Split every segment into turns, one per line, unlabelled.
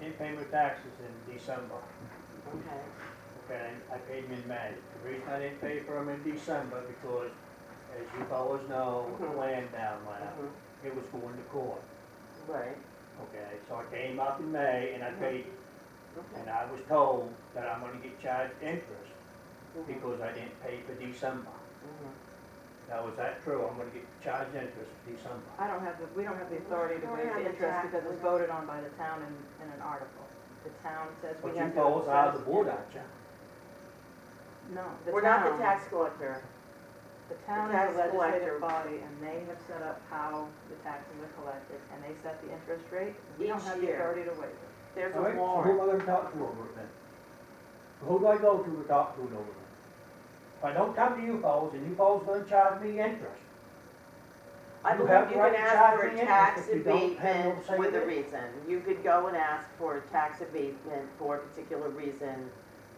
didn't pay my taxes in December,
Okay,
okay, I paid them in May. The reason I didn't pay for them in December, because as you fellows know, with the land down there,
mhm,
it was going to court,
right,
okay? So I came up in May and I paid,
okay.
and I was told that I'm gonna get charged interest
mhm,
because I didn't pay for December.
mhm.
Now, is that true? I'm gonna get charged interest for December.
I don't have the, we don't have the authority to
We don't
waive
have
the
the
interest
tax,
because
we
it's
don't.
voted on by the town in, in an article. The town says
But
we
you
have to.
fellows are the
assess-
board, aren't you?
No, the town.
We're not the tax collector.
The town
the
is a
tax collector.
legislative body and they have set up how the taxes are collected and they set the interest rate. We don't
Each
have the
year.
authority to waive it.
There's
All right,
a
so Who am
warrant.
I gonna talk to over it then? Who do I go to to talk to it over there? If I don't come to you fellows, and you fellows gonna charge me interest,
I
You
believe
have
you
right
can
to
ask
charge
for
me
a
interest if
tax
you don't have no
abatement
say
with
in
a
it.
reason. You could go and ask for a tax abatement for a particular reason,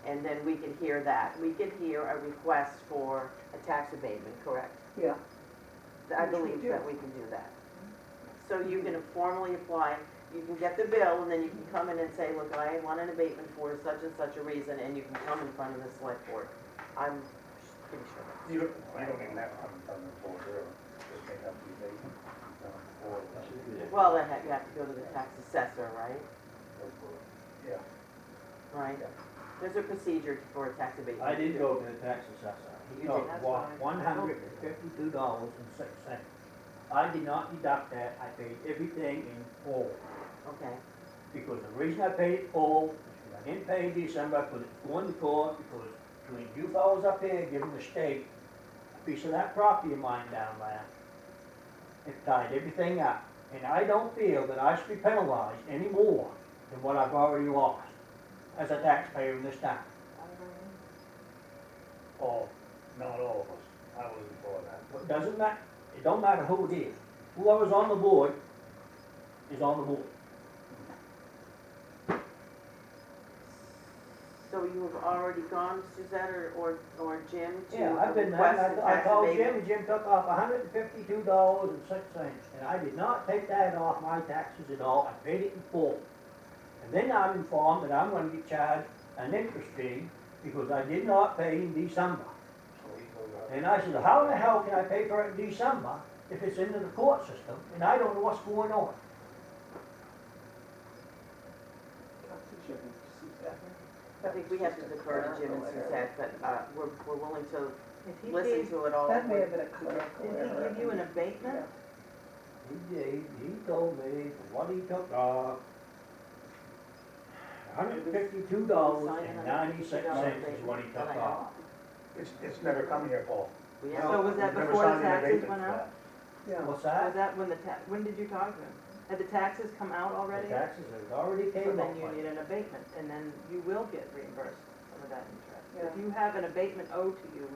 and then we could hear that. We could hear a request for a tax abatement, correct?
Yeah.
I
Which we
believe
do.
that we can do that. So you can formally apply, you can get the bill, and then you can come in and say, look, I want an abatement for such and such a reason, and you can come in front of the select board. I'm pretty sure.
You don't, you don't even have to come in front of the board, really, just make up the abatement, um, or, uh,
Well, then you have to go to the tax assessor, right?
yeah.
Right? There's a procedure for a tax abatement.
I did go to the tax assessor.
You
He
did,
took
that's fine.
one hundred and fifty-two dollars and six cents. I did not deduct that, I paid everything in full.
Okay,
Because the reason I paid it full is because I didn't pay in December, because it's going to court, because between you fellows up here giving the state a piece of that property of mine down there, it tied everything up. And I don't feel that I should be penalized any more than what I've already lost as a taxpayer in this town.
All, not all of us, I wasn't for that.
It doesn't matter, it don't matter who it is. Whoever's on the board is on the board.
so you have already gone, Suzette or, or, or Jim to
Yeah, I've been there,
request
and
the
I, I
tax
called Jim,
abatement?
and Jim took off hundred and fifty-two dollars and six cents, and I did not take that off my taxes at all, I paid it in full. And then I'm informed that I'm gonna get charged an interest fee, because I did not pay in December.
So he goes out.
And I said, how the hell can I pay for it in December if it's into the court system, and I don't know what's going on?
I think we have to defer to Jim and Suzette, but, uh, we're, we're willing to
If he
listen
gave,
to it all.
That may have been a clerical
did he
error.
give you an abatement?
He gave, he told me what he took off. Hundred and fifty-two dollars and ninety-six cents is what he took off.
It's, it's never come here, Paul.
We
So
have,
was that
We've never
before the
signed an
taxes
abatement
went
for
out?
that.
Yeah.
What's
Was
that?
that when the ta, when did you talk to him? Had the taxes come out
The
already?
taxes has already
So
came
then
up.
you need an abatement, and then you will get reimbursed some of that interest. If
Yeah.
you have an abatement owed to you,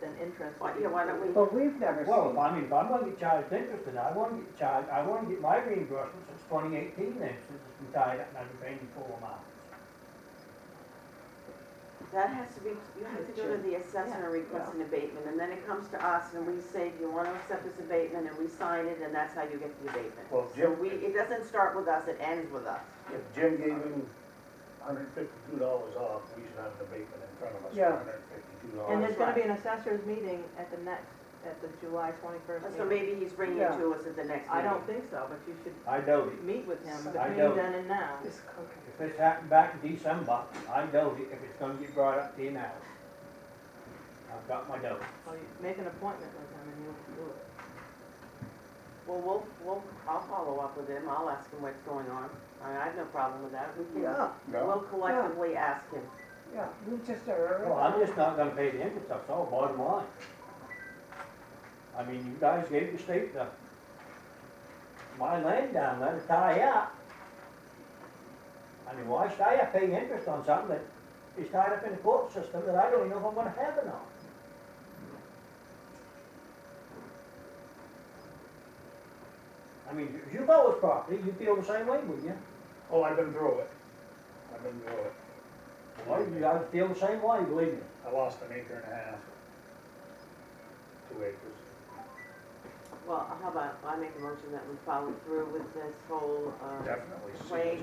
then interest.
Why-
will be
yeah, why don't we-
But we've never
Well, if
seen,
I mean, if I'm gonna get charged interest, then I wanna get charged, I wanna get my reimbursement since twenty eighteen then, since it's been tied up and I've been paying the full amount.
that has to be, you have to go to the assessor and request an abatement, and then it comes to us, and we say, do you wanna accept this abatement, and we sign it, and that's how you get the abatement.
Well,
So
Jim,
we, it doesn't start with us, it ends with us.
if Jim gave him hundred fifty-two dollars off, we should have an abatement in front of us for
Yeah.
hundred fifty-two dollars.
And there's gonna be an assessors meeting at the next, at the July twenty-first
So
meeting.
maybe he's bringing it to us at the next meeting.
I don't think so, but you should
I doubt it.
meet with him
I
between
don't.
then and now.
this cooking.
If this happened back in December, I doubt it if it's gonna get brought up to you now. I've got my doubts.
So you make an appointment with him and you'll do it.
Well, we'll, we'll, I'll follow up with him, I'll ask him what's going on, I I have no problem with that, we can,
Yeah,
we'll collectively ask him.
yeah, we just are.
Well, I'm just not gonna pay the interest, that's all, bottom line. I mean, you guys gave the state the, my land down there to tie up. I mean, why should I have pay interest on something that is tied up in the court system that I don't even know if I'm gonna have it on? I mean, if you bought this property, you feel the same way, wouldn't you?
Oh, I've been through it, I've been through it.
Well, you guys feel the same way, believe me.
I lost an acre and a half, two acres.
Well, how about, I make a motion that we follow through with this whole, uh,
Definitely.
Wait.